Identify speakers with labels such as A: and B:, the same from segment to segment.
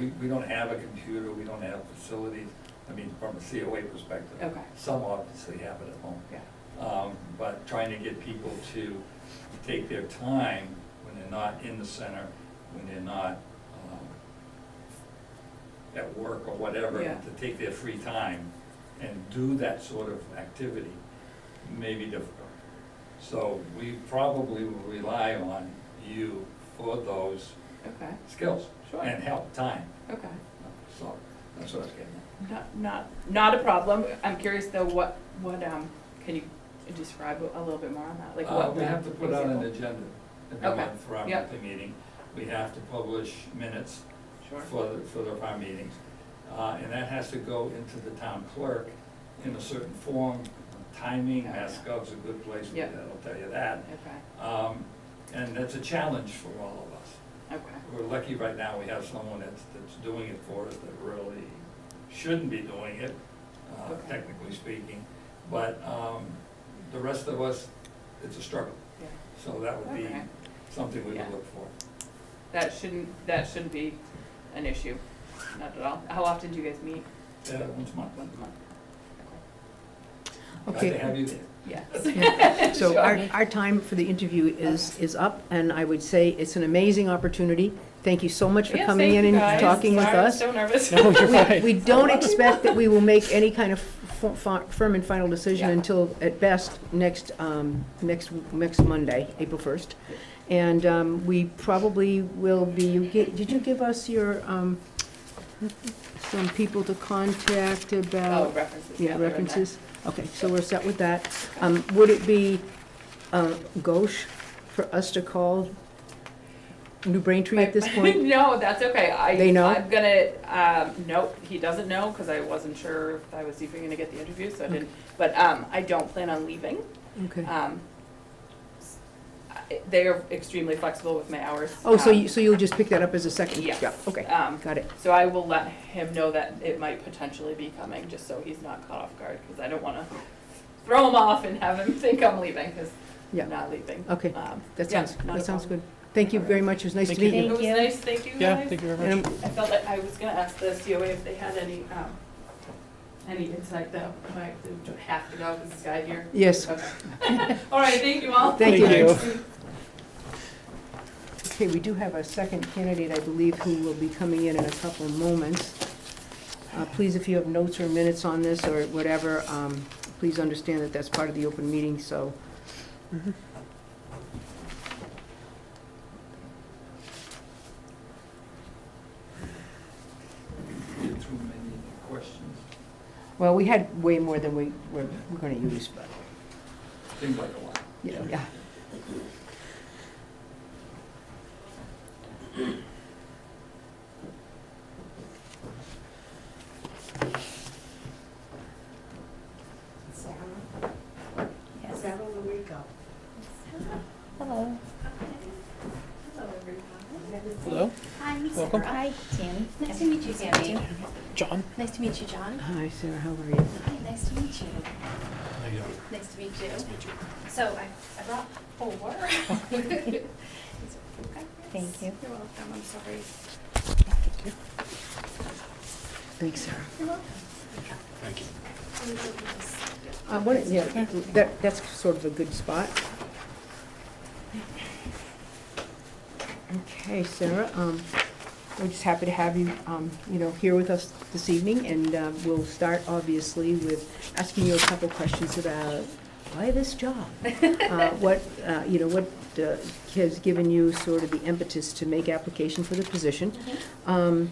A: We, we don't have a computer, we don't have facilities, I mean, from a COA perspective.
B: Okay.
A: Some obviously have it at home.
B: Yeah.
A: Um, but trying to get people to take their time when they're not in the center, when they're not, um, at work or whatever,
B: Yeah.
A: to take their free time and do that sort of activity may be difficult. So we probably will rely on you for those
B: Okay,
A: skills
B: Sure.
A: and help time.
B: okay.
A: So, that's what I was getting at.
B: Not, not, not a problem. I'm curious though, what, what, um, can you describe a little bit more on that? Like
A: Uh,
B: what?
A: We have to put out an
B: example?
A: agenda every
B: Okay,
A: month for our
B: yep.
A: monthly meeting. We have to publish minutes
B: Sure.
A: for, the- for the- our meetings. Uh, and that has to go into the town clerk in a certain form, timing,
B: Oh, yeah.
A: Mascov's a good place for
B: Yep.
A: that, I'll tell you that.
B: Okay,
A: Um, and that's a challenge for all of us.
B: okay,
A: We're lucky right now, we have someone that's, that's doing it for us that really shouldn't be doing it, uh,
B: Okay.
A: technically speaking. But, um, the rest of us, it's a struggle,
B: yeah.
A: so that would be
B: Okay.
A: something we
B: Yeah.
A: would look for.
B: That shouldn't, that shouldn't be an issue, not at all. How often do you guys meet?
A: Yeah, Uh, once a month.
B: Once a month?
A: Glad to
C: Okay,
A: have you there.
B: Yes.
C: so our, our time for the interview is, is up, and I would say it's an amazing opportunity. Thank you so much for
B: Yes,
C: coming
B: thank
C: in
B: you guys.
C: and talking with
B: Sorry, I'm
C: us.
B: so nervous.
D: No, you're
C: We-
D: fine.
C: We don't expect that we will make any kind of f- f- firm and final decision
B: Yeah.
C: until, at best, next, um, next, next Monday, April 1st. And um, we probably will be, you gi- did you give us your, um, some people to contact about?
B: Oh, references, yeah.
C: Yeah,
B: they're in
C: references, okay, so we're set with that. Um, would it be, uh, gauche for us to call New Braintree at this point?
B: no, that's okay. I,
C: They know?
B: I'm gonna, um, nope, he doesn't know because I wasn't sure if I was even gonna get the interview,
C: Mm.
B: so I didn't. But um, I don't plan on leaving.
C: Okay.
B: Um, s- I- they are extremely flexible with my hours.
C: Oh, so
B: um,
C: you, so you'll just pick that up as a second?
B: Yes.
C: Yeah, okay,
B: Um,
C: got it.
B: so I will let him know that it might potentially be coming, just so he's not caught off guard, because I don't want to throw him off and have him think I'm leaving, because
C: Yeah.
B: I'm not leaving.
C: Okay,
B: Um,
C: that
B: yeah,
C: sounds,
B: not a
C: that sounds
B: problem.
C: good. Thank you
B: All right.
C: very much, it was nice to
D: Thank
C: meet
B: It
C: you.
B: was nice, thank you
D: Yeah,
B: guys.
D: thank you very
C: And
D: much.
C: I'm-
B: I felt like I was gonna ask the COA if they had any, um, any insight though, like, do I have to go, 'cause this guy here?
C: Yes,
B: Okay. All right, thank you all.
C: Thank
D: Thank you.
C: okay, we do have a second candidate, I believe, who will be coming in in a couple of moments. Uh, please, if you have notes or minutes on this or whatever, um, please understand that that's part of the open meeting, so.
A: Get through many questions,
C: Well, we had way more than we were, we're gonna use, but,
A: seems like a lot.
C: yeah, yeah.
E: Sarah? Sarah Lurico.
F: Hello.
E: Hello, everyone.
D: Hello,
F: Hi, I'm
D: Welcome.
F: Sarah. Hi, Tammy.
E: Nice to meet you, Tammy.
D: John.
F: Nice to meet you, John.
C: Hi, Sarah, how are you?
F: Hi, nice to meet you. Nice to meet you.
E: So I, I brought four.
F: Thank you.
E: You're welcome, I'm sorry.
C: Thanks, Sarah.
E: You're welcome. Thank you.
C: Uh, what, yeah, that, that's sort of a good spot. Okay, Sarah, um, we're just happy to have you, um, you know, here with us this evening, and, um, we'll start obviously with asking you a couple questions about why this job? Uh, what, uh, you know, what, uh, has given you sort of the impetus to make application for the position? Um,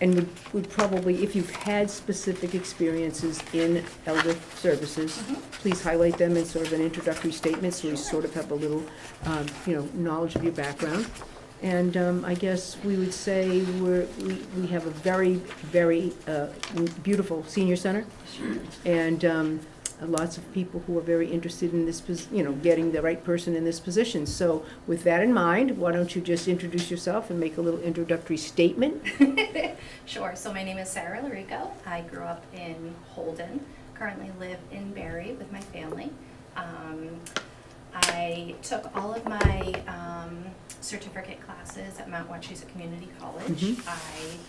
C: And would, would probably, if you've had specific experiences in elder services, please highlight them in sort of an introductory statement, so we sort of have a little, um, you know, knowledge of your background. And um, I guess we would say we're, we- we have a very, very uh, beautiful senior center, and um, lots of people who are very interested in this, pos- you know, getting the right person in this position. So with that in mind, why don't you just introduce yourself and make a little introductory statement,
F: Sure. So my name is Sarah Larico. I grew up in Holden. Currently live in Barry with my family. Um, I took all of my um, certificate classes at Mount Wachusett Community College.
C: Mhm.
F: I